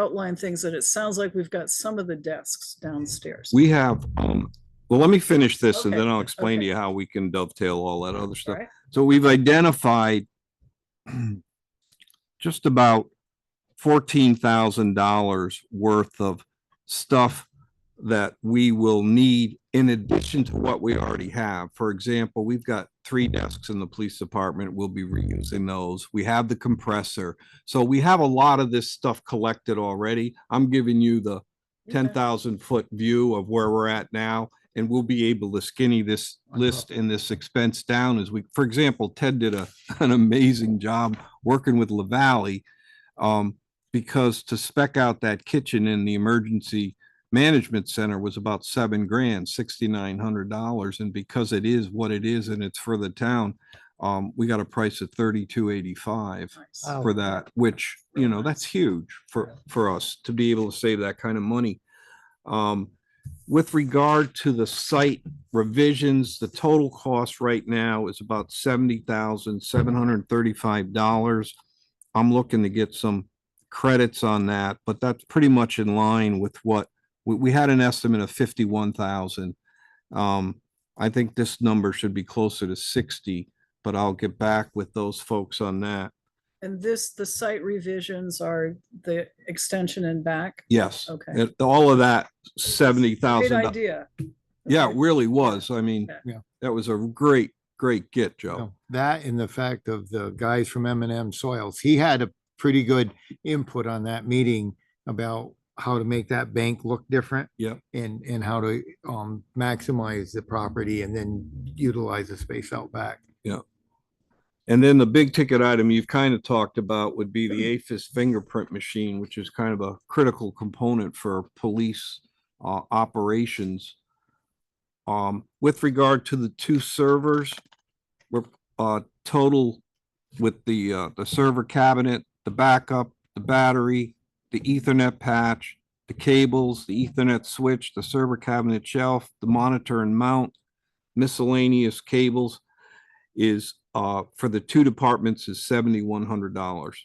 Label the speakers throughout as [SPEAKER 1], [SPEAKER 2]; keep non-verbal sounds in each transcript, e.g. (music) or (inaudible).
[SPEAKER 1] outline things that it sounds like we've got some of the desks downstairs.
[SPEAKER 2] We have, um, well, let me finish this and
[SPEAKER 1] Okay,
[SPEAKER 2] then I'll explain to
[SPEAKER 1] okay.
[SPEAKER 2] you how we can dovetail all that other
[SPEAKER 1] All
[SPEAKER 2] stuff.
[SPEAKER 1] right.
[SPEAKER 2] So we've identified (clears throat) just about fourteen thousand dollars worth of stuff that we will need in addition to what we already have. For example, we've got three desks in the police department. We'll be reusing those. We have the compressor. So we have a lot of this stuff collected already. I'm giving you the ten thousand foot view of where we're at now. And we'll be able to skinny this list and this expense down as we, for example, Ted did a, (laughs) an amazing job working with LaValley. Um, because to spec out that kitchen in the emergency management center was about seven grand, sixty-nine hundred dollars. And because it is what it is and it's for the town, um, we got a price of thirty-two eighty-five
[SPEAKER 1] Nice.
[SPEAKER 3] Wow.
[SPEAKER 2] for that, which, you know, that's huge for, for us to be able to save that kind of money. Um, with regard to the site revisions, the total cost right now is about seventy thousand, seven hundred and thirty-five dollars. I'm looking to get some credits on that, but that's pretty much in line with what, we, we had an estimate of fifty-one thousand. Um, I think this number should be closer to sixty, but I'll get back with those folks on that.
[SPEAKER 1] And this, the site revisions are the extension and back.
[SPEAKER 2] Yes.
[SPEAKER 1] Okay.
[SPEAKER 2] it- All of that seventy
[SPEAKER 1] Great
[SPEAKER 2] thousand.
[SPEAKER 1] idea.
[SPEAKER 2] Yeah, it
[SPEAKER 1] Okay.
[SPEAKER 2] really was. I mean,
[SPEAKER 3] Yeah.
[SPEAKER 2] that was a great, great get, Joe.
[SPEAKER 3] No, That and the fact of the guys from M and M Soils, he had a pretty good input on that meeting about how to make that bank look different.
[SPEAKER 2] Yep.
[SPEAKER 3] And, and how to, um, maximize the property and then utilize the space out back.
[SPEAKER 2] And then the big ticket item you've kind of talked about would be the AFIS fingerprint machine, which is kind of a critical component for police uh, operations. Um, with regard to the two servers, we're, uh, total with the, uh, the server cabinet, the backup, the battery, the ethernet patch, the cables, the ethernet switch, the server cabinet shelf, the monitor and mount, miscellaneous cables is, uh, for the two departments is seventy-one hundred dollars.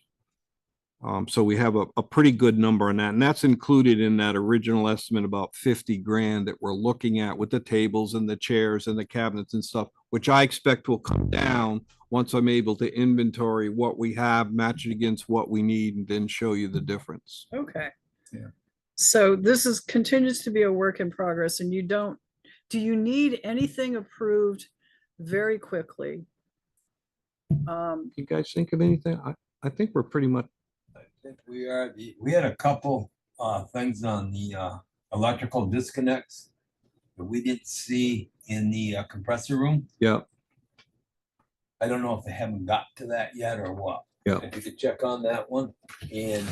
[SPEAKER 2] Um, so we have a, a pretty good number on that, and that's included in that original estimate about fifty grand that we're looking at with the tables and the chairs and the cabinets and stuff, which I expect will come down once I'm able to inventory what we have, match it against what we need, and then show you the difference.
[SPEAKER 1] Okay.
[SPEAKER 3] Yeah.
[SPEAKER 1] So this is, continues to be a work in progress and you don't, do you need anything approved very quickly? Um,
[SPEAKER 2] You guys think of anything? I, I think we're pretty much,
[SPEAKER 4] I think we are, the- we had a couple uh things on the uh electrical disconnects. That we didn't see in the uh, compressor room.
[SPEAKER 2] yeah,
[SPEAKER 4] I don't know if they haven't got to that yet or what.
[SPEAKER 2] Yeah.
[SPEAKER 4] If you could check on that one and.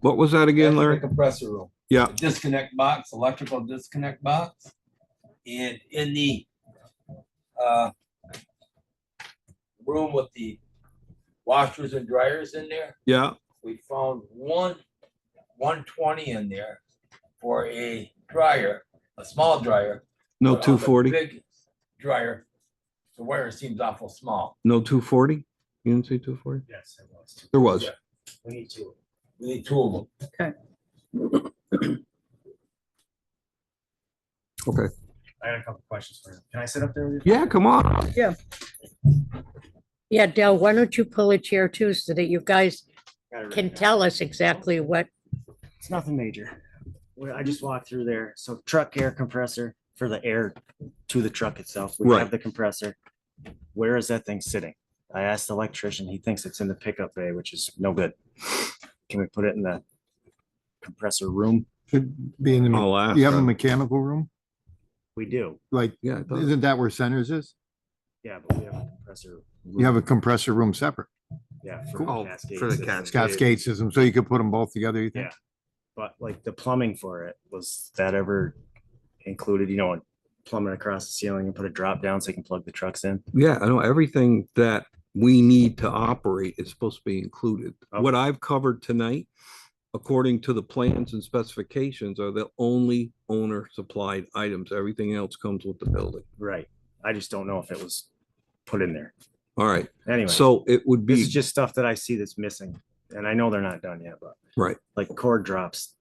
[SPEAKER 2] what was that again,
[SPEAKER 4] That's the
[SPEAKER 2] Larry?
[SPEAKER 4] Compressor room.
[SPEAKER 2] Yeah.
[SPEAKER 4] The Disconnect box, electrical disconnect box. And in the uh room with the washers and dryers in there.
[SPEAKER 2] Yeah,
[SPEAKER 4] we found one, one twenty in there for a dryer, a small dryer.
[SPEAKER 2] no
[SPEAKER 4] but on
[SPEAKER 2] two
[SPEAKER 4] the
[SPEAKER 2] forty,
[SPEAKER 4] Big dryer, the wire seems awful small.
[SPEAKER 2] no two forty? You didn't say two forty?
[SPEAKER 4] Yes, it was.
[SPEAKER 2] There was.
[SPEAKER 4] Yeah. We need two. We need two of them.
[SPEAKER 5] I got a couple questions for you. Can I sit up there with you?
[SPEAKER 2] Yeah, come on.
[SPEAKER 6] Yeah, Dell, why don't you pull a chair too so that you guys
[SPEAKER 5] Got it written
[SPEAKER 6] can
[SPEAKER 5] down.
[SPEAKER 6] tell us exactly what,
[SPEAKER 5] It's nothing major. Well, I just walked through there. So truck air compressor for the air to the truck itself. We
[SPEAKER 2] Right.
[SPEAKER 5] have the compressor. Where is that thing sitting? I asked the electrician. He thinks it's in the pickup bay, which is no good. Can we put it in the compressor room?
[SPEAKER 3] Should be in the, me-
[SPEAKER 2] I'll ask.
[SPEAKER 3] you have a
[SPEAKER 2] them.
[SPEAKER 3] mechanical room?
[SPEAKER 5] We do.
[SPEAKER 3] Like,
[SPEAKER 2] Yeah, I thought-
[SPEAKER 3] isn't that where Centers is?
[SPEAKER 5] Yeah, but we have a compressor.
[SPEAKER 3] You have a compressor room separate.
[SPEAKER 5] Yeah.
[SPEAKER 2] Oh,
[SPEAKER 5] Cascade
[SPEAKER 2] for the
[SPEAKER 5] system.
[SPEAKER 3] Scott's gate system, so you could put them both together, you think?
[SPEAKER 5] Yeah. But like the plumbing for it, was that ever included, you know, plumbing across the ceiling and put a drop down so you can plug the trucks in?
[SPEAKER 2] yeah, I know everything that we need to operate is supposed to be included.
[SPEAKER 5] Okay.
[SPEAKER 2] What I've covered tonight, according to the plans and specifications, are the only owner supplied items. Everything else comes with the building.
[SPEAKER 5] Right. I just don't know if it was put in there.
[SPEAKER 2] All right,
[SPEAKER 5] Anyway,
[SPEAKER 2] so it would
[SPEAKER 5] this
[SPEAKER 2] be,
[SPEAKER 5] is just stuff that I see that's missing and I know they're not done yet, but.
[SPEAKER 2] Right.
[SPEAKER 5] Like cord drops,